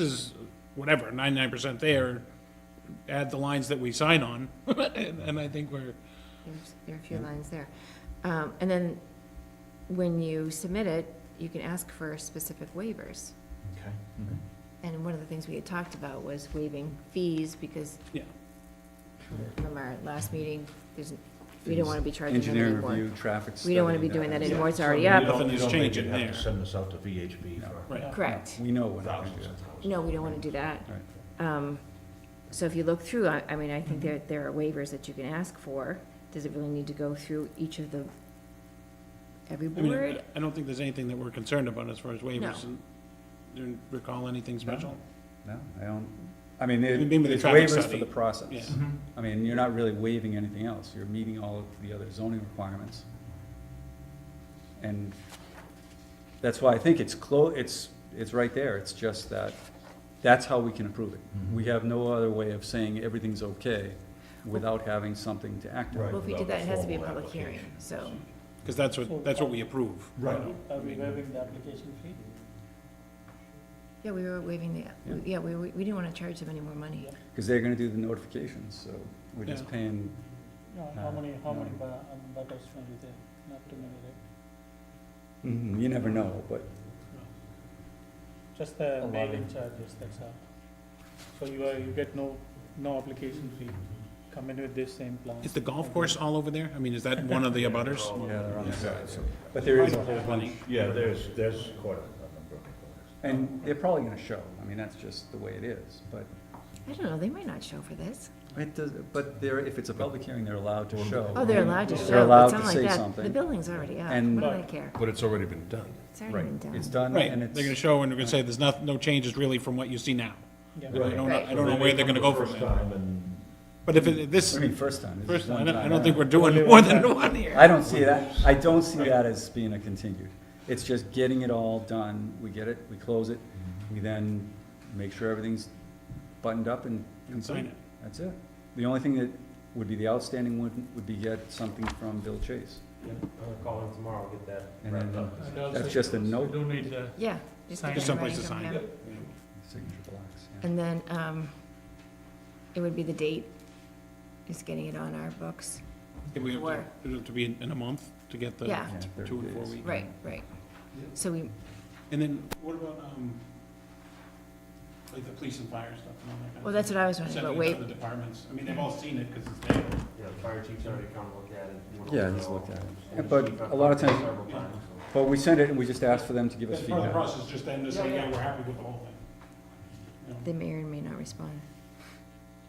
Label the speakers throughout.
Speaker 1: is whatever, ninety-nine percent there, add the lines that we sign on, and, and I think we're,
Speaker 2: There's, there are a few lines there. Um, and then, when you submit it, you can ask for specific waivers.
Speaker 3: Okay.
Speaker 2: And one of the things we had talked about was waiving fees, because
Speaker 1: yeah.
Speaker 2: from our last meeting, there's, we don't wanna be charging them
Speaker 4: Engineering
Speaker 2: anymore.
Speaker 4: review, traffic study.
Speaker 2: We don't wanna be doing that anymore, it's already
Speaker 1: Yeah.
Speaker 2: up.
Speaker 1: Nothing is changing
Speaker 3: You
Speaker 1: there.
Speaker 3: have to send this out to VHB for
Speaker 1: Right.
Speaker 2: Correct.
Speaker 4: We know what
Speaker 3: thousands
Speaker 4: happens.
Speaker 3: and thousands.
Speaker 2: No, we don't wanna do that. Um, so if you look through, I, I mean, I think there, there are waivers that you can ask for. Does it really need to go through each of the, every
Speaker 1: I mean, I
Speaker 2: board?
Speaker 1: I don't think there's anything that we're concerned about as far as waivers,
Speaker 2: No.
Speaker 1: and, do you recall anything special?
Speaker 4: No, I don't, I mean,
Speaker 1: You mean with the
Speaker 4: it's
Speaker 1: traffic
Speaker 4: waivers for
Speaker 1: study?
Speaker 4: the
Speaker 1: Yeah.
Speaker 4: process. I mean, you're not really waiving anything else, you're meeting all of the other zoning requirements. And that's why I think it's clo, it's, it's right there, it's just that, that's how we can approve it. We have no other way of saying everything's okay without having something to act on.
Speaker 3: Right.
Speaker 2: Well, if we did
Speaker 3: without
Speaker 2: that,
Speaker 3: a
Speaker 2: it has to be a
Speaker 3: formal
Speaker 2: public hearing,
Speaker 3: application.
Speaker 2: so.
Speaker 1: Because that's what, that's what we approve.
Speaker 3: Right.
Speaker 5: Are we waiving the application fee?
Speaker 2: Yeah, we were waiving the, yeah, we, we we didn't want to charge them any more money.
Speaker 4: Cause they're gonna do the notifications, so we're just
Speaker 1: Yeah.
Speaker 4: paying,
Speaker 5: No, how
Speaker 4: No,
Speaker 5: many, how
Speaker 4: no.
Speaker 5: many bu- um, butters will be there? Not too many, right?
Speaker 4: you never know, but
Speaker 5: Just the
Speaker 3: lot.
Speaker 5: mailing charges, that's all. So you are, you get no, no application fee. Come in with this same plan.
Speaker 1: Is the golf course all over there? I mean, is that one of the abutters?
Speaker 4: Yeah, they're on the side, so, but there is a whole bunch,
Speaker 3: Yeah, there's, there's quite a a number of butters.
Speaker 4: and they're probably gonna show, I mean, that's just the way it is, but
Speaker 2: I don't know, they might not show for this.
Speaker 4: it does, but they're, if it's a public hearing, they're allowed to show.
Speaker 2: Oh, they're allowed to
Speaker 4: They're
Speaker 2: show, but
Speaker 4: allowed
Speaker 2: it's not
Speaker 4: to
Speaker 2: like
Speaker 4: say
Speaker 2: that. The
Speaker 4: something.
Speaker 2: building's already up,
Speaker 4: And-
Speaker 2: what do they care?
Speaker 6: But it's already been done.
Speaker 2: It's already
Speaker 4: Right,
Speaker 2: been done.
Speaker 4: it's done,
Speaker 1: Right,
Speaker 4: and
Speaker 1: they're
Speaker 4: it's.
Speaker 1: gonna show and they're gonna say, there's not, no changes really from what you see now.
Speaker 5: Yeah.
Speaker 1: I don't, know-
Speaker 2: Right.
Speaker 1: I don't know
Speaker 3: They
Speaker 1: where they're
Speaker 3: come
Speaker 1: gonna
Speaker 3: the
Speaker 1: go from
Speaker 3: first
Speaker 1: there.
Speaker 3: time and
Speaker 1: But if it, this,
Speaker 4: I mean, first time, this
Speaker 1: first,
Speaker 4: is one
Speaker 1: I
Speaker 4: time.
Speaker 1: don't, I don't think we're
Speaker 5: Only
Speaker 1: doing
Speaker 5: one
Speaker 1: more than one here.
Speaker 4: I don't see that, I don't see that as being a continued, it's just getting it all done, we get it, we close it, we then make sure everything's buttoned up and.
Speaker 1: And sign
Speaker 4: complete.
Speaker 1: it.
Speaker 4: That's it. The only thing that would be the outstanding one would be get something from Bill Chase.
Speaker 7: I'll call in tomorrow, get that
Speaker 4: And
Speaker 7: wrapped
Speaker 4: then-
Speaker 7: up.
Speaker 4: That's just a note.
Speaker 5: don't need the.
Speaker 2: Yeah. just
Speaker 5: Sign
Speaker 2: get
Speaker 5: it.
Speaker 2: it in
Speaker 1: Someplace
Speaker 2: writing
Speaker 1: to
Speaker 2: from
Speaker 1: sign
Speaker 2: him.
Speaker 4: Signature blocks, yeah.
Speaker 2: And then, um, it would be the date, just getting it on our books.
Speaker 1: If we have to,
Speaker 2: Where?
Speaker 1: it'll have to be in in a month to get the
Speaker 2: Yeah.
Speaker 4: Yeah,
Speaker 1: two and
Speaker 4: 30
Speaker 1: four
Speaker 4: days.
Speaker 1: weeks.
Speaker 2: Right, right. So we,
Speaker 1: And then what about, um, like the police and fire stuff and all that kind of?
Speaker 2: well, that's what I was
Speaker 1: stuff?
Speaker 2: wondering
Speaker 1: Sending it
Speaker 2: about, wait,
Speaker 1: to the departments, I mean, they've all seen it because it's there.
Speaker 7: Yeah, the fire chief's already come and looked at it. went
Speaker 4: Yeah,
Speaker 7: over
Speaker 4: he's
Speaker 7: all.
Speaker 4: looked at it.
Speaker 7: And
Speaker 4: Yeah,
Speaker 7: the
Speaker 4: but
Speaker 7: chief
Speaker 4: a lot of
Speaker 7: I've talked to
Speaker 4: times-
Speaker 7: several times, so.
Speaker 4: But we send it and we just ask for them to give us
Speaker 1: That's part of the
Speaker 4: feedback.
Speaker 1: process, just them to say, yeah, we're happy with the whole thing. You know?
Speaker 2: they may or may not respond.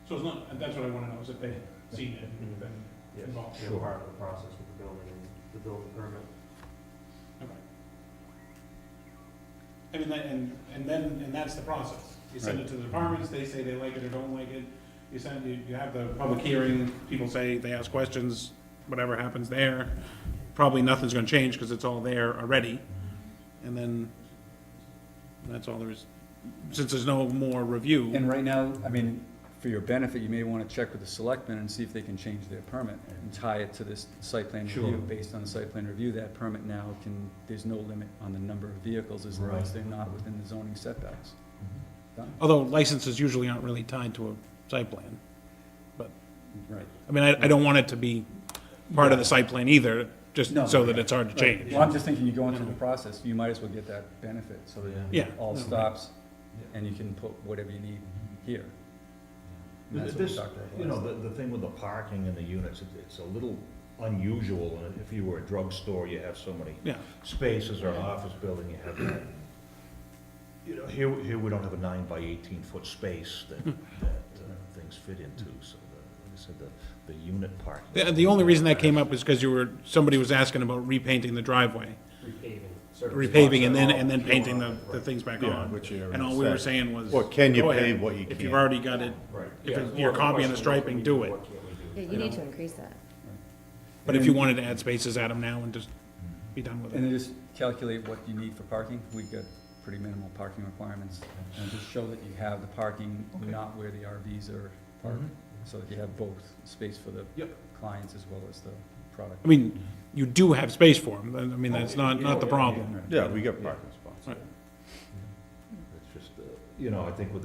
Speaker 1: So it's not, and that's what I want to know, is if they've seen it, and
Speaker 4: Mm-hmm.
Speaker 1: been
Speaker 7: Yes,
Speaker 1: involved.
Speaker 7: they're part of the process with the building and the building permit.
Speaker 1: Okay. I mean, that- and, and then, and that's the process. You send it to the departments, they say they like it or don't like it. You send, you, you have the public hearing, people say, they ask questions, whatever happens there. Probably nothing's gonna change, cause it's all there already. And then, that's all there is. Since there's no more review,
Speaker 4: And right now, I mean, for your benefit, you may wanna check with the selectmen and see if they can change their permit and tie it to this site plan review.
Speaker 3: Sure.
Speaker 4: Based on the site plan review, that permit now can, there's no limit on the number of vehicles as long as
Speaker 3: Right.
Speaker 4: they're not within the zoning setbacks. Done.
Speaker 1: although licenses usually aren't really tied to a site plan.
Speaker 4: Right.
Speaker 1: I mean, I, I don't want it to be part of the site plan either, just
Speaker 4: No.
Speaker 1: so that it's hard to change.
Speaker 4: Well, I'm just thinking, you go into the process, you might as well get that benefit, so that
Speaker 1: Yeah.
Speaker 4: it all stops, and you can put whatever you need here. And that's what
Speaker 3: Mm-hmm.
Speaker 4: we
Speaker 3: This-
Speaker 4: talked about
Speaker 3: You know,
Speaker 4: last-
Speaker 3: the, the thing with the parking and the units, it- it's a little unusual, and if you were a drugstore, you have so many
Speaker 1: Yeah,
Speaker 3: spaces or an office building, you have that. You know, here, here we don't have a nine by eighteen foot space that,
Speaker 1: Hmm.
Speaker 3: that uh, things fit into, so the, like I said, the, the unit parking.
Speaker 1: the, the only reason that came up is because you were, somebody was asking about repainting the driveway,
Speaker 7: Repaving.
Speaker 1: repaving and then, and then painting the, the things back
Speaker 6: Yeah,
Speaker 1: on.
Speaker 6: which area
Speaker 1: And all
Speaker 6: is
Speaker 1: we were
Speaker 6: that?
Speaker 1: saying was.
Speaker 6: Well, can you
Speaker 1: go ahead.
Speaker 6: pave what you
Speaker 1: If you've
Speaker 6: can't?
Speaker 1: already got it,
Speaker 7: Right.
Speaker 1: If
Speaker 7: Yeah,
Speaker 1: it's
Speaker 7: it's
Speaker 1: your
Speaker 7: more of a
Speaker 1: copy and the
Speaker 7: question of what
Speaker 1: striping,
Speaker 7: we
Speaker 1: do it.
Speaker 7: What can we do?
Speaker 2: Yeah, you need to increase that.
Speaker 1: but if you wanted to add spaces, add them now and just be done with
Speaker 4: And then
Speaker 1: it.
Speaker 4: just calculate what you need for parking, we've got pretty minimal parking requirements, and just show that you have the parking, not where the RVs are parked, so that you have both, space for the
Speaker 1: Mm-hmm. Yep.
Speaker 4: clients as well as the product.
Speaker 1: I mean, you do have space for them, I
Speaker 7: Oh,
Speaker 1: mean, that's not, not the problem.
Speaker 6: Yeah, we get parking spots.
Speaker 1: Right.
Speaker 3: It's just, uh, you know, I think with